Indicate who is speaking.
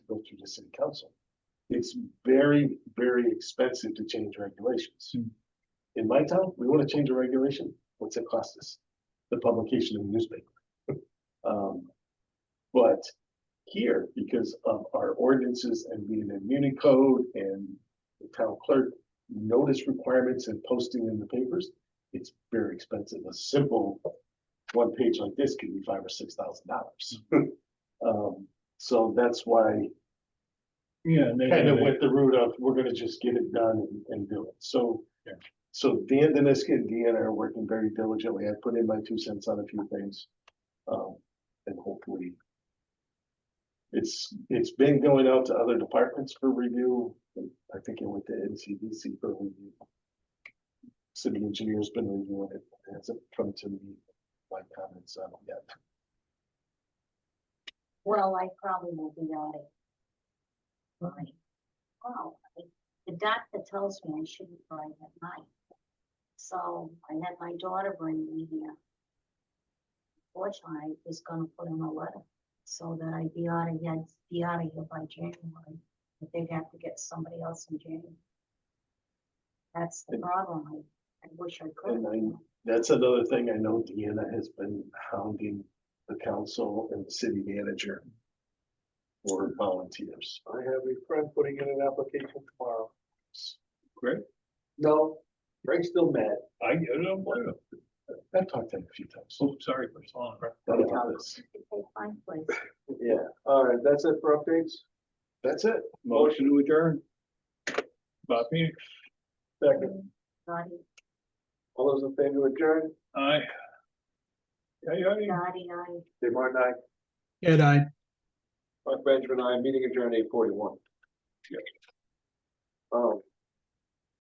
Speaker 1: city council. It's very, very expensive to change regulations.
Speaker 2: Hmm.
Speaker 1: In my town, we want to change a regulation, what's it cost us? The publication in the newspaper. Um, but here, because of our ordinances and being in Muni code and the town clerk notice requirements and posting in the papers, it's very expensive. A simple one page like this could be five or six thousand dollars. Um, so that's why
Speaker 2: Yeah. and they-
Speaker 1: kind of
Speaker 2: they-
Speaker 1: went the route of, we're gonna just get it done and- and do it, so.
Speaker 2: Yeah.
Speaker 1: So Dan Deniska and Deanna are working very diligently, I put in my two cents on a few things. Um, and hopefully. It's, it's been going out to other departments for review, I think it went to NCDC for review. City engineer's been reviewing it, It hasn't come to me, my comments on it yet.
Speaker 3: Well, I probably will be on it. Right. Wow, I- the doctor tells me I shouldn't drive at night. So I had my daughter bring me here. Fortunately, I was gonna put in a letter so that I'd be out of here, be out of here by January. But they'd have to get somebody else in January. That's the
Speaker 1: And-
Speaker 3: problem. I, I wish I could.
Speaker 1: And I- That's another thing I know Deanna has been hounding the council and the city manager. For volunteers.
Speaker 4: I have a friend putting in an application tomorrow.
Speaker 2: Greg?
Speaker 4: No, Greg's still mad.
Speaker 2: I get it, I'm blue.
Speaker 1: I've talked to him a few times.
Speaker 2: Oh, sorry, for so long.
Speaker 1: Not about this.
Speaker 3: They find place.
Speaker 4: Yeah, all right, that's it for updates.
Speaker 1: That's it.
Speaker 2: Motion to adjourn. Bob Phoenix,
Speaker 4: Second,
Speaker 3: Naughty,
Speaker 4: all those in favor to adjourn,
Speaker 2: aye. Aye, aye.
Speaker 3: naughty, naughty.
Speaker 4: Dave Martin, I,
Speaker 5: Ed, I.
Speaker 4: Mark Benjamin, I, meeting adjourned eight forty-one. Um,